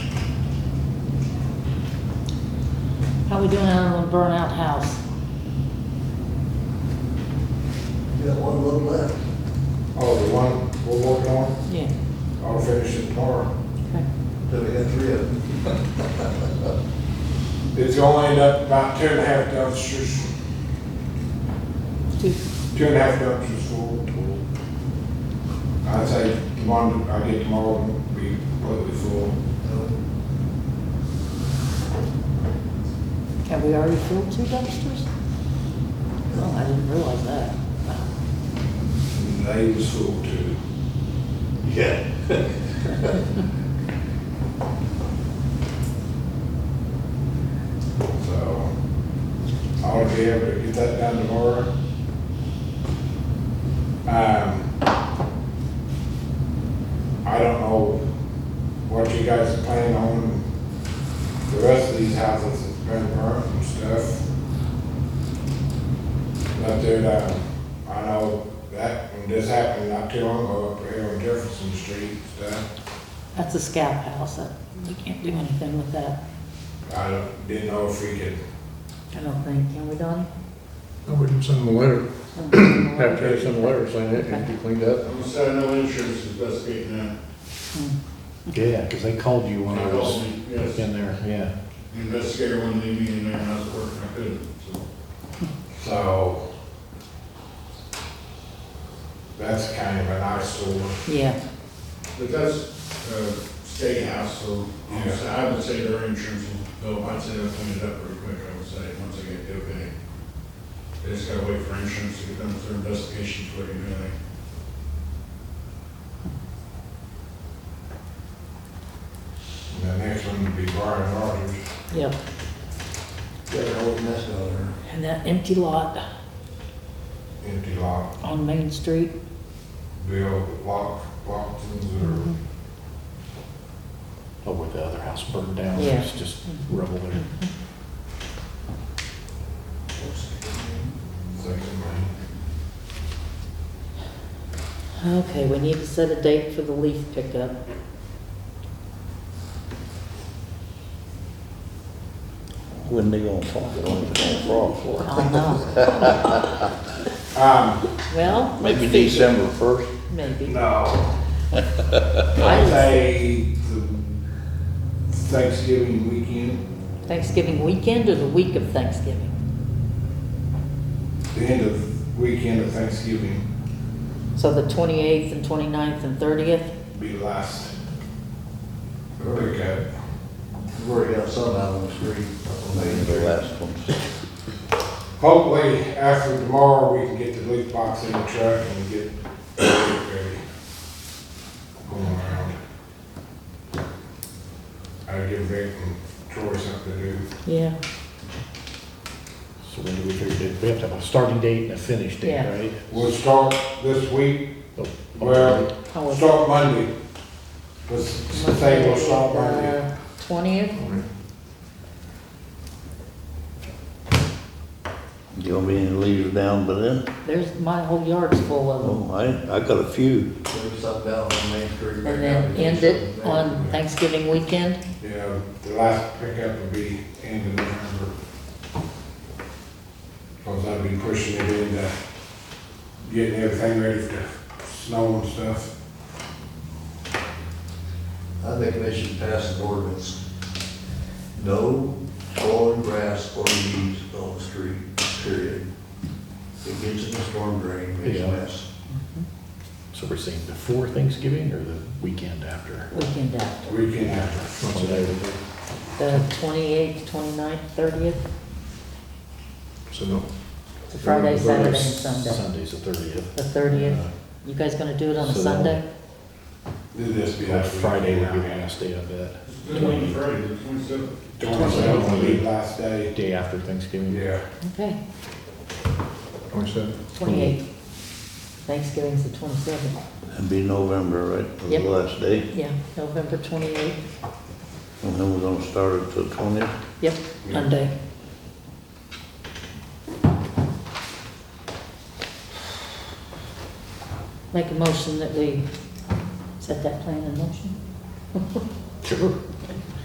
How we doing on the burnout house? You got one load left. Oh, the one we're working on, Yeah. I'll finish it tomorrow. Okay. Then we got three of them. It's only end up about two and a half dumpsters, Two. two and a half dumpsters full. I'd say tomorrow, I get tomorrow, will be completely full. Have we already filled two dumpsters? Well, I didn't realize that. Wow. And They was full too. Yeah. So I'll be able to get that done tomorrow. Um, I don't know what you guys are planning on, the rest of these houses that's been burnt and stuff. Up there, uh, I know that, when this happened not too long ago, up here on Jefferson Street, and stuff. That's a scout house. That- We can't do anything with that, I don't- didn't know if we could I don't think, can we, Donnie? I wouldn't send them a letter, have Hmm. to send them a letter saying it needs to be cleaned up. I'm sorry, no insurance is best getting that. Yeah, because they called you when I was Yes, in there, yeah. investigator wanted to leave me in there and I was working, I couldn't, so. So that's kind of an eyesore. Yeah, But that's, uh, state house, so I'm s- I would say their insurance will, bill. I'd say they'll clean it up pretty quick, I would say, once they get the okay. They just gotta wait for insurance to get done with their investigation before they do anything. And the next one would be Brian Rogers. yep. Got an old mess down there. And that empty lot Empty lot, on Main Street, Bill Lock, Lockton's Oh, where the other house burned down, Yeah. it's just rubble there. or second man. Okay, we need to set a date for the leaf pickup. When they gonna fall, when they gonna fall for it? Oh, no. Um, Well, let's Maybe see. December first? Maybe. no, I I'd was- say the Thanksgiving weekend, Thanksgiving weekend or the week of Thanksgiving? the end of, weekend of Thanksgiving So the 28th and 29th and 30th? be last. Pickup. We've already got some out on the street. up on Main The Street. last ones. Hopefully, after tomorrow, we can get the leaf box in the truck and get it ready. Going around. I'll give Vic and Troy something to do. Yeah. So when do we figure it? We have to have a starting date and a finish date, Yeah. right? We'll start this week, Oh, well, How was start Monday. Let's say we'll start Monday. Uh, Twentieth? You gonna be any leaves down by then? There's, my whole yard's full of them. Oh, I, I got a few. There's some down on Main Street. And then end it on Thanksgiving weekend? Yeah, the last pickup will be end of November. Cause I'll be pushing it into getting everything ready for the snow and stuff. I think they should pass an ordinance. No fallen grass or leaves on the street, period. It gets in the storm drain, makes a Yeah. mess. So we're saying before Thanksgiving or the weekend after? Weekend after, Weekend after. What's it over? the twenty-eighth, twenty-ninth, thirtieth, So no. it's a Friday, Saturday, and Sunday. Sunday's the thirtieth. The thirtieth, you guys gonna do it on a So- Sunday? Did this be Yeah, last Friday would be the last day, I bet. It's been waiting for it, it's 27. Twenty-seven will be last day. Day after Thanksgiving. Yeah. Okay, Twenty-seven. twenty-eighth. Thanksgiving's the twenty-seventh, It'd be November, right, for the Yep. last day? yeah, November twenty-eighth, And then we're gonna start it till twentieth? yep, uh, Yeah. Monday. Make a motion that we set that plan in motion? Sure.